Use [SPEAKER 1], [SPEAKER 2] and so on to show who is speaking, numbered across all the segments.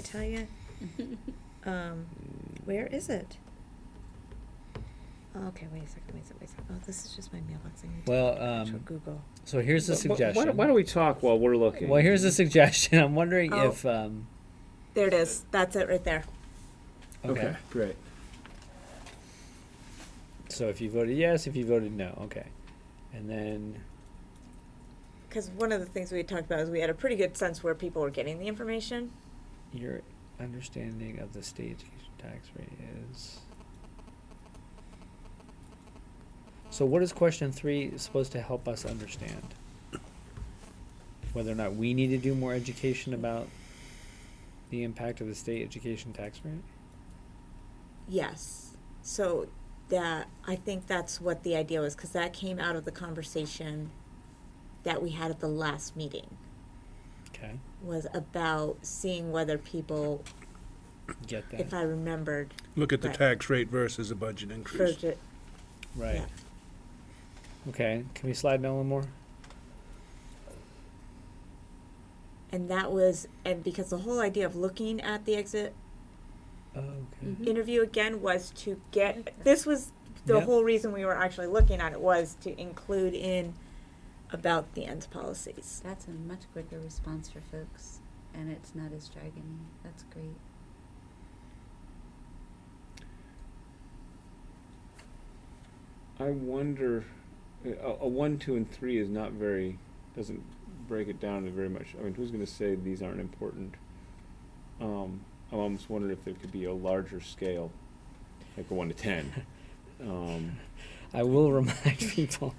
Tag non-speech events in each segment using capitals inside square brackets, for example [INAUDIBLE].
[SPEAKER 1] I tell you? Um, where is it? Oh, Okay, wait a second, wait a second, wait a second. Oh, this is just my mailbox. I need to
[SPEAKER 2] Well,
[SPEAKER 1] actual
[SPEAKER 2] um,
[SPEAKER 1] Google.
[SPEAKER 2] so here's a
[SPEAKER 3] Wh- wh- Why,
[SPEAKER 2] suggestion.
[SPEAKER 3] don't- why don't we talk while we're looking?
[SPEAKER 2] Well, here's a suggestion. I'm wondering
[SPEAKER 1] Oh.
[SPEAKER 2] if, um,
[SPEAKER 1] There it is. That's it right there.
[SPEAKER 2] okay.
[SPEAKER 3] great.
[SPEAKER 2] So if you voted yes, if you voted no, okay. And then,
[SPEAKER 1] Because one of the things we had talked about is we had a pretty good sense where people were getting the information.
[SPEAKER 2] Your understanding of the state education tax rate is. So, what is question three supposed to help us understand? Whether or not we need to do more education about the impact of the state education tax rate?
[SPEAKER 1] Yes. So that I think that's what the idea was because that came out of the conversation that we had at the last meeting
[SPEAKER 2] Okay,
[SPEAKER 1] was about seeing whether people,
[SPEAKER 2] get
[SPEAKER 1] if
[SPEAKER 2] that.
[SPEAKER 1] I remembered,
[SPEAKER 4] Look at the
[SPEAKER 1] Right.
[SPEAKER 4] tax rate versus a budget increase.
[SPEAKER 1] verge-
[SPEAKER 2] Right.
[SPEAKER 1] yeah.
[SPEAKER 2] Okay, can we slide down one more?
[SPEAKER 1] and that was and because the whole idea of looking at the exit
[SPEAKER 2] Oh, okay.
[SPEAKER 5] Mm-hmm.
[SPEAKER 3] Mhm.
[SPEAKER 1] interview again was to get this was the
[SPEAKER 2] Yep.
[SPEAKER 1] whole reason we were actually looking at it was to include in about the ends policies.
[SPEAKER 5] [LAUGHS] That's a much quicker response for folks, and it's not as dragging. That's great.
[SPEAKER 3] I wonder, uh, a, a one, two, and three is not very, doesn't break it down to very much. I mean, who's going to say these aren't important? Um, I almost wondered if there could be a larger scale, like a one
[SPEAKER 2] [LAUGHS]
[SPEAKER 3] to ten. Um,
[SPEAKER 2] I will [LAUGHS]
[SPEAKER 1] [LAUGHS]
[SPEAKER 2] remind people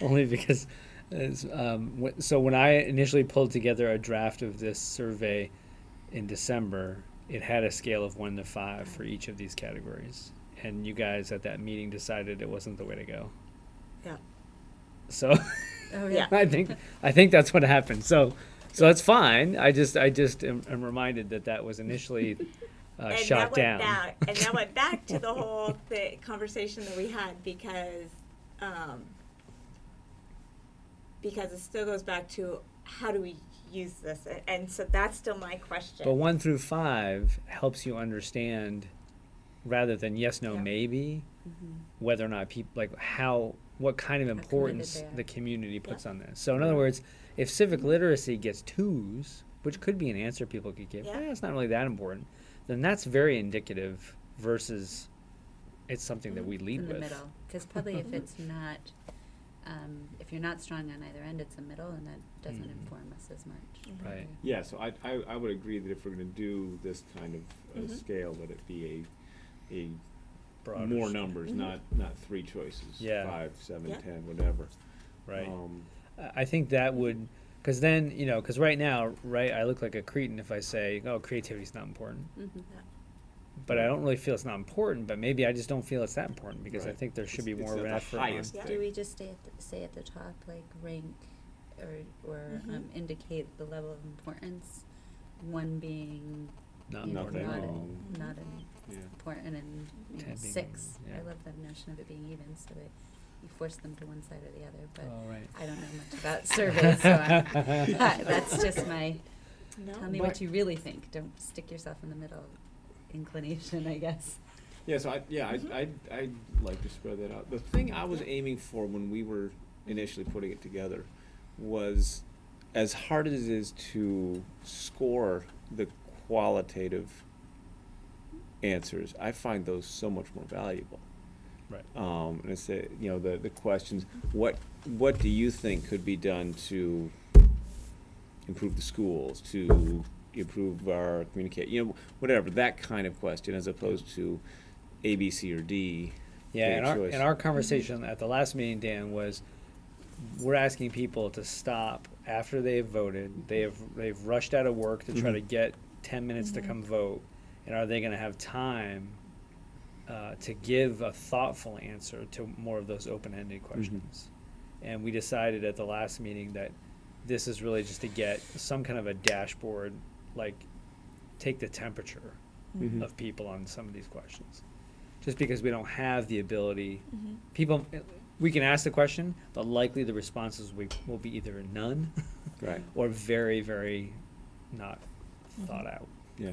[SPEAKER 2] only because it's, um, wh- so when I initially pulled together a draft of this survey in December, it had a scale of one to five for each of these categories, and you guys at that meeting decided it wasn't the way to go.
[SPEAKER 1] Yeah.
[SPEAKER 2] So [LAUGHS]
[SPEAKER 5] Oh,
[SPEAKER 1] Yeah.
[SPEAKER 2] I think I think that's what happened. So so that's fine. I just I just am, am reminded that that was initially uh,
[SPEAKER 1] [LAUGHS] and
[SPEAKER 2] shot
[SPEAKER 1] that
[SPEAKER 2] down.
[SPEAKER 1] went back and that went back
[SPEAKER 2] [LAUGHS]
[SPEAKER 1] to the whole th- conversation that we had because um, because it still goes back to how do we use this A- and so that's still my question.
[SPEAKER 2] But one through five helps you understand, rather than yes, no,
[SPEAKER 5] Yeah.
[SPEAKER 2] maybe,
[SPEAKER 5] Mm-hmm.
[SPEAKER 2] whether or not people like how what kind of
[SPEAKER 5] committed
[SPEAKER 2] importance
[SPEAKER 5] they are.
[SPEAKER 2] the community puts
[SPEAKER 1] Yeah.
[SPEAKER 2] on this. So in other
[SPEAKER 3] Yeah.
[SPEAKER 2] words, if civic literacy gets twos, which could be an answer people could give,
[SPEAKER 1] Yeah.
[SPEAKER 2] "Eh, it's not really that important, then that's very indicative versus it's something that we lead
[SPEAKER 5] in the
[SPEAKER 2] with.
[SPEAKER 5] middle, because probably if it's not, um, if you're not strong on either end, it's a middle, and that doesn't
[SPEAKER 2] Mhm.
[SPEAKER 5] inform us as much.
[SPEAKER 2] Right.
[SPEAKER 3] yeah, so I, I, I would agree that if we're going to do this kind of uh,
[SPEAKER 1] Mhm.
[SPEAKER 3] scale, that it be a, a
[SPEAKER 2] Mm-hmm. Broader
[SPEAKER 3] more
[SPEAKER 2] s-
[SPEAKER 3] numbers,
[SPEAKER 1] Mhm.
[SPEAKER 3] not not three choices.
[SPEAKER 2] Yeah.
[SPEAKER 3] Five, seven,
[SPEAKER 1] Yeah.
[SPEAKER 3] ten, whatever.
[SPEAKER 2] Right.
[SPEAKER 3] Um,
[SPEAKER 2] I- I think that would, because then, you know, because right now, right, I look like a cretin if I say, oh, creativity's not important.
[SPEAKER 5] Mm-hmm.
[SPEAKER 2] but
[SPEAKER 3] Mm.
[SPEAKER 2] I don't really feel it's not important. But maybe I just don't feel it's that important because I
[SPEAKER 3] Right.
[SPEAKER 2] think there should be
[SPEAKER 3] It's-
[SPEAKER 2] more
[SPEAKER 3] it's
[SPEAKER 2] of an
[SPEAKER 3] not the
[SPEAKER 2] effort.
[SPEAKER 3] highest
[SPEAKER 2] on-
[SPEAKER 1] Yeah.
[SPEAKER 5] Do we just stay at the, say at the top, like rank, or or
[SPEAKER 1] Mhm.
[SPEAKER 5] um, indicate the level of importance? One being
[SPEAKER 2] Not
[SPEAKER 5] you know,
[SPEAKER 3] Nothing.
[SPEAKER 5] not,
[SPEAKER 3] wrong.
[SPEAKER 5] not an
[SPEAKER 3] yeah.
[SPEAKER 5] important and you know,
[SPEAKER 2] Ten being
[SPEAKER 5] six.
[SPEAKER 2] even, yeah.
[SPEAKER 5] I love that notion of it being even, so that you force them to one side or the other. But
[SPEAKER 2] Oh, right.
[SPEAKER 5] I don't know much about surveys, so [LAUGHS] I'm,
[SPEAKER 2] [LAUGHS]
[SPEAKER 5] that's just my.
[SPEAKER 1] No.
[SPEAKER 5] Tell me what you really think. Don't stick yourself in the middle inclination, I guess.
[SPEAKER 3] Yeah, so I, yeah, I, I, I'd like to spread that out. The thing I was aiming for when we were initially putting it together was as hard as it is to score the qualitative answers, I find those so much more valuable.
[SPEAKER 2] Right.
[SPEAKER 3] Um, and it's, uh, you know, the, the questions, what, what do you think could be done to improve the schools, to improve our communicate, you know, whatever, that kind of question, as opposed to A, B, C, or D.
[SPEAKER 2] Yeah,
[SPEAKER 3] Great
[SPEAKER 2] and our,
[SPEAKER 3] choice.
[SPEAKER 2] and our conversation at the last meeting, Dan, was we're asking people to stop after they've voted. They have they've rushed out of work to try to
[SPEAKER 3] Mhm.
[SPEAKER 2] get ten minutes
[SPEAKER 1] Mhm.
[SPEAKER 2] to come vote, and are they going to have time uh, to give a thoughtful answer to more of those open-ended questions? And we decided at the last meeting that this is really just to get some kind of a dashboard, like take the temperature
[SPEAKER 3] Mhm.
[SPEAKER 2] of people on some of these questions. Just because we don't have the ability, people, we can ask the question, but likely the responses we, will be either none
[SPEAKER 3] Right,
[SPEAKER 2] or very, very not
[SPEAKER 1] Mhm.
[SPEAKER 2] thought out.
[SPEAKER 3] yeah.